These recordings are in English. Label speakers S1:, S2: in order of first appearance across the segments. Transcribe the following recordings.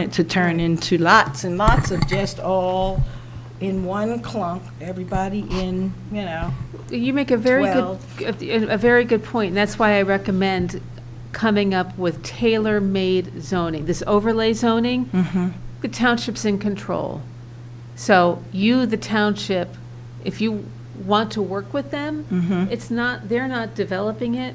S1: it to turn into lots and lots of just all in one clump, everybody in, you know.
S2: You make a very good, a a very good point, and that's why I recommend coming up with tailor-made zoning. This overlay zoning, the township's in control. So you, the township, if you want to work with them,
S1: Mhm.
S2: it's not, they're not developing it.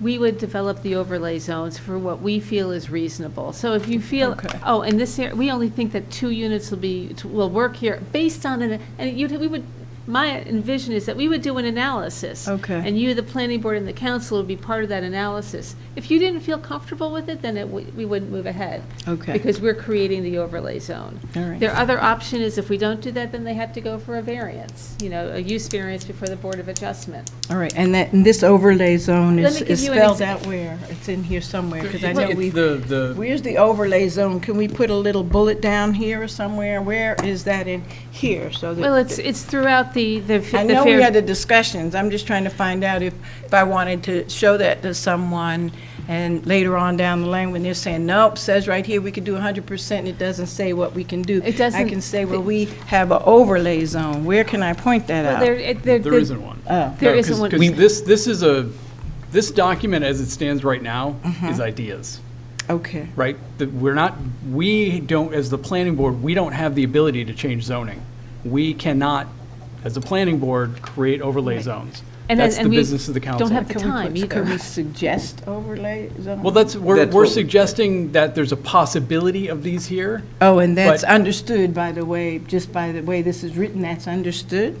S2: We would develop the overlay zones for what we feel is reasonable. So if you feel,
S1: Okay.
S2: oh, and this here, we only think that two units will be, will work here, based on, an and you, we would, my envision is that we would do an analysis.
S1: Okay.
S2: And you, the planning board and the council would be part of that analysis. If you didn't feel comfortable with it, then it, w- we wouldn't move ahead.
S1: Okay.
S2: Because we're creating the overlay zone.
S1: All right.
S2: Their other option is if we don't do that, then they have to go for a variance, you know, a use variance before the Board of Adjustment.
S1: All right, and that, and this overlay zone
S2: Let
S1: is
S2: me give
S1: is
S2: you an
S1: spelled
S2: exa-
S1: out where? It's in here somewhere, because I
S2: It's-
S1: know
S2: it's
S1: we,
S3: The, the,
S1: where's the overlay zone? Can we put a little bullet down here or somewhere? Where is that in here? So that.
S2: Well, it's, it's throughout the, the.
S1: I
S2: the
S1: know we
S2: fair-
S1: had the discussions, I'm just trying to find out if, if I wanted to show that to someone, and later on down the line, when they're saying, nope, says right here, we could do hundred percent, and it doesn't say what we can do.
S2: It doesn't-
S1: I can say, well, we have an overlay zone, where can I point that
S2: Well, there,
S1: out?
S2: it- there.
S3: there isn't one.
S1: Oh,
S2: There
S3: No,
S2: isn't
S3: 'cause-
S2: one.
S3: Cause
S2: We-
S3: this, this is a, this document as it stands right now is ideas,
S1: okay,
S3: right? That we're not, we don't, as the planning board, we don't have the ability to change zoning. We cannot, as a planning board, create overlay zones.
S2: And then-
S3: That's the
S2: and we
S3: business of the council.
S2: Don't have the
S1: Can we put-
S2: time either.
S1: Can we suggest overlay zone?
S3: Well, that's, we're,
S4: That's
S3: we're
S4: what we-
S3: suggesting that there's a possibility of these here.
S1: Oh, and that's
S3: but-
S1: understood, by the way, just by the way this is written, that's understood?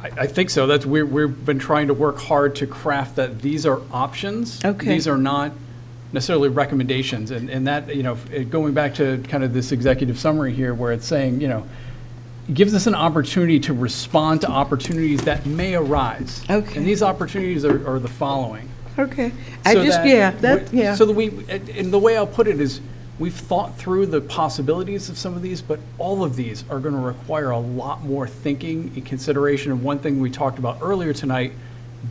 S3: I, I think so. That's, we're, we've been trying to work hard to craft that these are options.
S1: Okay.
S3: These are not necessarily recommendations. And, and that, you know, it- going back to kind of this executive summary here where it's saying, you know, gives us an opportunity to respond to opportunities that may arise.
S1: Okay.
S3: And these opportunities are, are the following.
S1: Okay, I
S3: So
S1: just,
S3: that-
S1: yeah, that, yeah.
S3: So that we, and and the way I'll put it is, we've thought through the possibilities of some of these, but all of these are going to require a lot more thinking and consideration of one thing we talked about earlier tonight,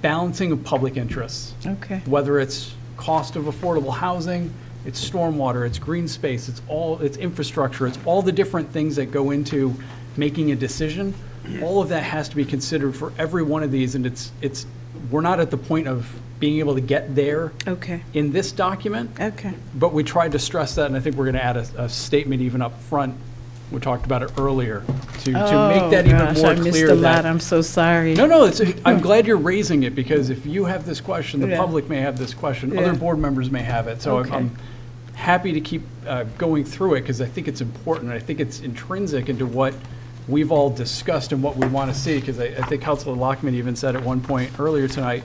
S3: balancing of public interests.
S1: Okay.
S3: Whether it's cost of affordable housing, it's stormwater, it's green space, it's all, it's infrastructure, it's all the different things that go into making a decision. All of that has to be considered for every one of these, and it's, it's, we're not at the point of being able to get there
S1: Okay,
S3: in this document,
S1: okay.
S3: but we tried to stress that, and I think we're going to add a, a statement even up front. We talked about it earlier, to, to
S1: Oh,
S3: make that even
S1: gosh,
S3: more
S1: I missed
S3: clear
S1: a lot.
S3: that.
S1: I'm so sorry.
S3: No, no, it's, I'm glad you're raising it, because if you have this question, the
S1: Yeah.
S3: public may have this question,
S1: Yeah.
S3: other board members may have it. So I'm-
S1: Okay.
S3: I'm happy to keep uh, going through it, because I think it's important, I think it's intrinsic into what we've all discussed and what we want to see, because I, I think Councilor Lockman even said at one point earlier tonight,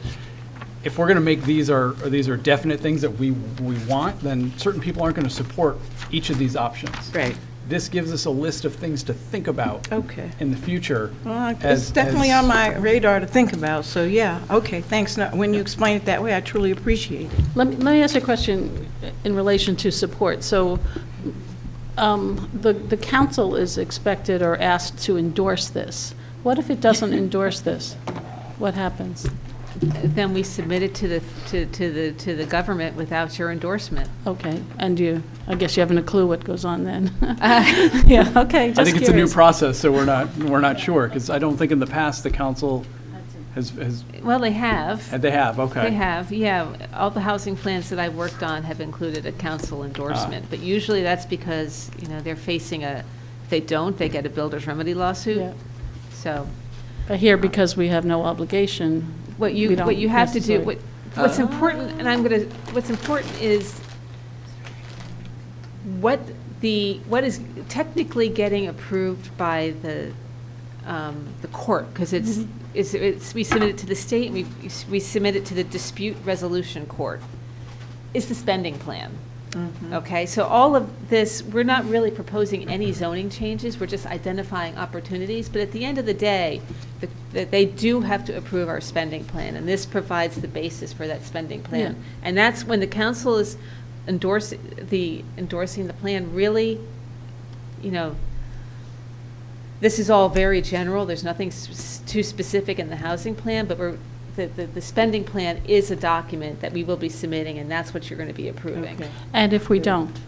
S3: if we're going to make these are, or these are definite things that we, we want, then certain people aren't going to support each of these options.
S1: Right.
S3: This gives us a list of things to think about.
S1: Okay.
S3: In the future.
S1: Well, It's
S3: as-
S1: definitely
S3: as-
S1: on my radar to think about, so yeah, okay, thanks. No, When you explain it that way, I truly appreciate it.
S5: Let me, let me ask you a question in relation to support. So um, the, the council is expected or asked to endorse this. What if it doesn't endorse this? What happens?
S2: Then we submit it to the, to, to the, to the government without your endorsement.
S5: Okay, and you, I guess you haven't a clue what goes on then. Yeah, okay,
S3: I
S5: just
S3: think it's a new
S5: curious.
S3: process, so we're not, we're not sure, because I don't think in the past the council has, has,
S2: Well, they have.
S3: and they have, okay.
S2: They have, yeah. All the housing plans that I've worked on have included a council
S3: Ah.
S2: endorsement, but usually that's because, you know, they're facing a, if they don't, they get a builder's remedy
S5: Yeah.
S2: lawsuit. So,
S5: But here, because we have no obligation.
S2: what you,
S5: we don't
S2: what you have to do,
S5: necessarily-
S2: what, what's important, and I'm gonna, what's important is what the, what is technically getting approved by the, um, the court, because it's,
S5: Mm-hmm.
S2: it's, it's, we submit it to the state, and we, we submit it to the dispute resolution court, is the spending plan. Okay, so all of this, we're not really proposing any zoning changes, we're just identifying opportunities, but at the end of the day, the- that they do have to approve our spending plan, and this provides the basis for that spending plan. And that's when the council is endorsing, the, endorsing the plan, really, you know, this is all very general, there's nothing s- s- too specific in the housing plan, but we're, the, the, the spending plan is a document that we will be submitting, and that's what you're gonna be approving.
S1: Okay.
S5: And if we don't,